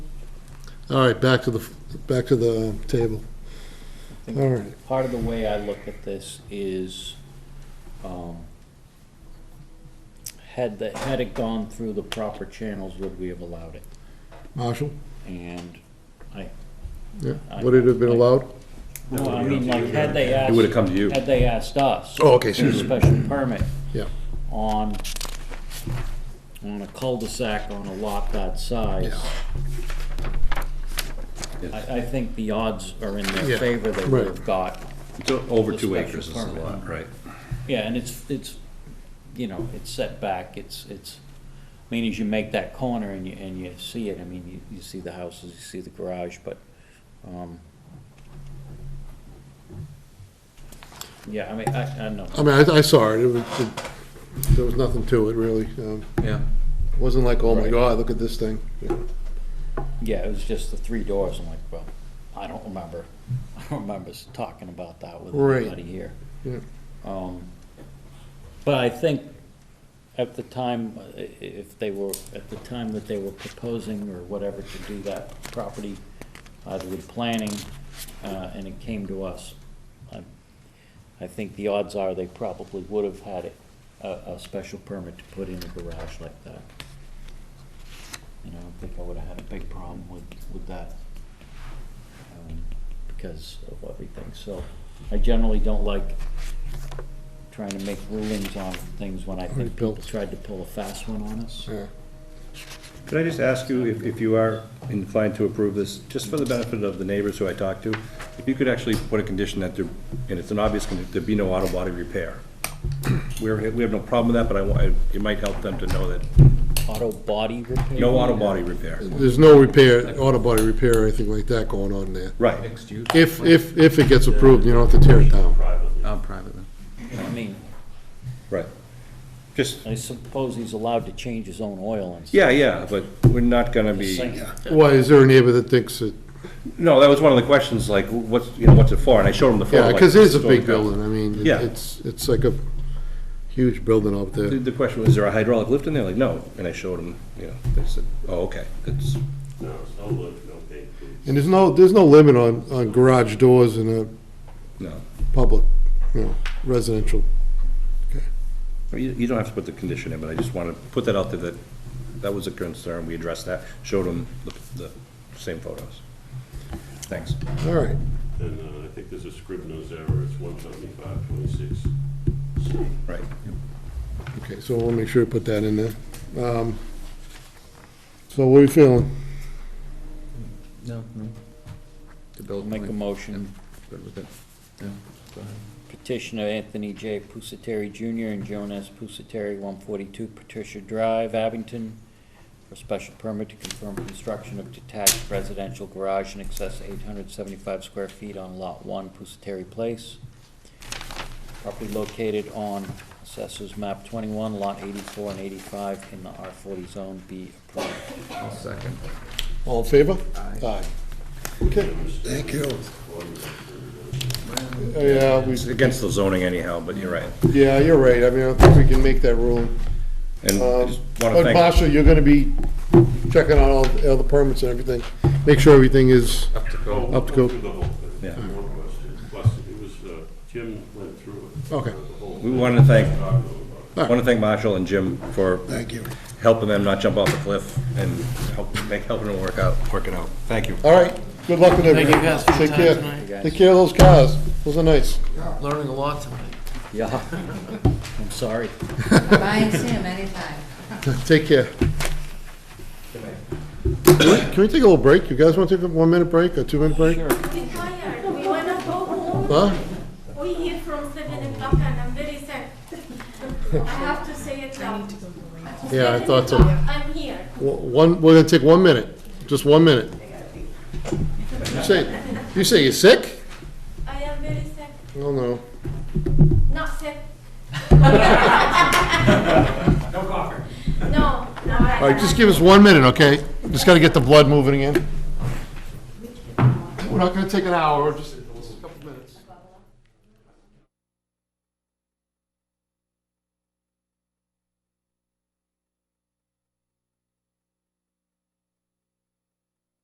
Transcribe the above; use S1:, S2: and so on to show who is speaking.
S1: All right, back to the, back to the table. All right,
S2: Part of the way I look at this is, um, had the, had it gone through the proper channels, would we have allowed it?
S1: Marshall?
S2: And I,
S1: Yeah, would it have been allowed?
S2: no, I mean, like, had they asked.
S3: It would've come to you.
S2: Had they asked us.
S1: Oh, okay,
S2: for a Special permit
S1: Yeah,
S2: on, on a cul-de-sac on a lot that size. I, I think the odds are in
S1: Yeah,
S2: their favor they would have
S1: right.
S2: got
S3: It's o- over
S2: The
S3: two
S2: special
S3: acres is a
S2: permit.
S3: lot, right?
S2: Yeah, and it's, it's, you know, it's set back, it's, it's, I mean, as you make that corner and you, and you see it, I mean, you, you see the houses, you see the garage, but, um, yeah, I mean, I, I don't know.
S1: I mean, I, I saw it, it was, it- there was nothing to it, really. Um,
S3: Yeah.
S1: it Wasn't like, oh my
S2: Right.
S1: God, look at this thing. Yeah.
S2: Yeah, it was just the three doors, I'm like, well, I don't remember, I don't remember s- talking about that with
S1: Right.
S2: anybody here.
S1: Yeah.
S2: Um, But I think at the time, uh, i- if they were, at the time that they were proposing or whatever to do that property, either with planning, uh, and it came to us, I- I think the odds are they probably would have had it- a, a special permit to put in a garage like that. And I don't think I would have had a big problem with, with that um, because of everything. So I generally don't like trying to make rulings on things when I
S1: Already
S2: think people
S1: built.
S2: tried to pull a fast one on us.
S1: Yeah.
S3: Could I just ask you, if, if you are inclined to approve this, just for the benefit of the neighbors who I talked to, if you could actually put a condition that there, and it's an obvious, condition, there be no auto body repair. We're, we have no problem with that, but I, want- it might help them to know that,
S2: Auto body repair?
S3: no auto body repair.
S1: There's no repair, auto body repair or anything like that going on there.
S3: Right.
S4: Mixed use?
S1: If, if, if it gets approved, you don't have to tear it down.
S4: Oh, private then.
S2: I mean,
S3: Right. Just,
S2: I suppose he's allowed to change his own oil and.
S3: yeah, yeah, but we're not gonna be.
S1: Why, is there a neighbor that thinks that,
S3: No, that was one of the questions, like, what's, you know, what's it for? And I showed him the photo.
S1: yeah,
S3: like,
S1: because it is Oh, a
S3: story
S1: big
S3: built.
S1: building, I mean, it-
S3: Yeah.
S1: it's, it's like a huge building up
S3: The,
S1: there.
S3: the question was, is there a hydraulic lift in there? Like, no. And I showed him, you know, they said, oh, okay, it's,
S5: No, it's no lift, no big
S1: And there's no, there's no limit on, on garage doors in a
S3: no.
S1: public, you know, residential.
S3: You, you don't have to put the condition in, but I just want to put that out there that that was a concern. We addressed that, showed him the, the same photos. Thanks.
S1: All right,
S5: And uh, I think there's a Scribner's error, it's one seventy-five twenty-six. So
S3: Right.
S1: okay, so we'll make sure to put that in there. Um, So what are you feeling?
S4: No, no. The
S2: We'll
S4: building.
S2: Make a motion,
S4: Good with it. Yeah, go ahead.
S2: petitioner Anthony J. Pusateri Jr. and Joan S. Pusateri, 142 Patricia Drive, Abington, for special permit to confirm construction of detached residential garage in excess of 875 square feet on Lot 1, Pusateri Place. Property located on Assessors Map 21, Lot 84 and 85 in the R40 zone, be approved.
S4: I'll second.
S1: All in favor?
S4: Aye.
S1: Aye. Okay. Thank you. Uh, Yeah, we,
S3: It's against the zoning anyhow, but you're right.
S1: yeah, you're right, I mean, I don't think we can make that rule.
S3: And I
S1: Um,
S3: just want to
S1: But
S3: thank,
S1: Marshall, you're gonna be checking on all, all the permits and everything, make sure everything is,
S4: Up to
S5: Well,
S4: go.
S5: we'll
S1: Up to go.
S5: through the whole thing.
S3: Yeah.
S5: No question. Plus, it was, uh, Jim went through it.
S1: Okay.
S5: The whole
S3: we
S5: thing.
S3: want to thank,
S5: Talked about it.
S3: want to thank Marshall and Jim for
S1: Thank you.
S3: helping them not jump off the cliff and help, make, helping them work out, work it out. Thank you.
S1: all right, good luck with everything.
S4: you guys for your
S1: Take
S4: time
S1: care.
S4: tonight.
S2: You guys.
S1: Take care of those cars, those are nice.
S4: Learning a lot tonight.
S2: Yeah, I'm sorry.
S6: Buy and see him anytime.
S1: Take care. Can we- can we take a little break? You guys want to take a one-minute break, a two-minute break?
S7: I'm tired. We wanna go home.
S1: Huh?
S7: We here from seven o'clock and I'm very sad. I have to say it loud.
S1: Yeah, I
S7: Seven
S1: thought so.
S7: o'clock, I'm here.
S1: One, we're gonna take one minute, just one minute. You say, you say you're sick?
S7: I am very sad.
S1: No, no.
S7: Not sick. no coffee. No, no.
S1: All right, just give us one minute, okay? Just gotta get the blood moving again. We're not gonna take an hour, just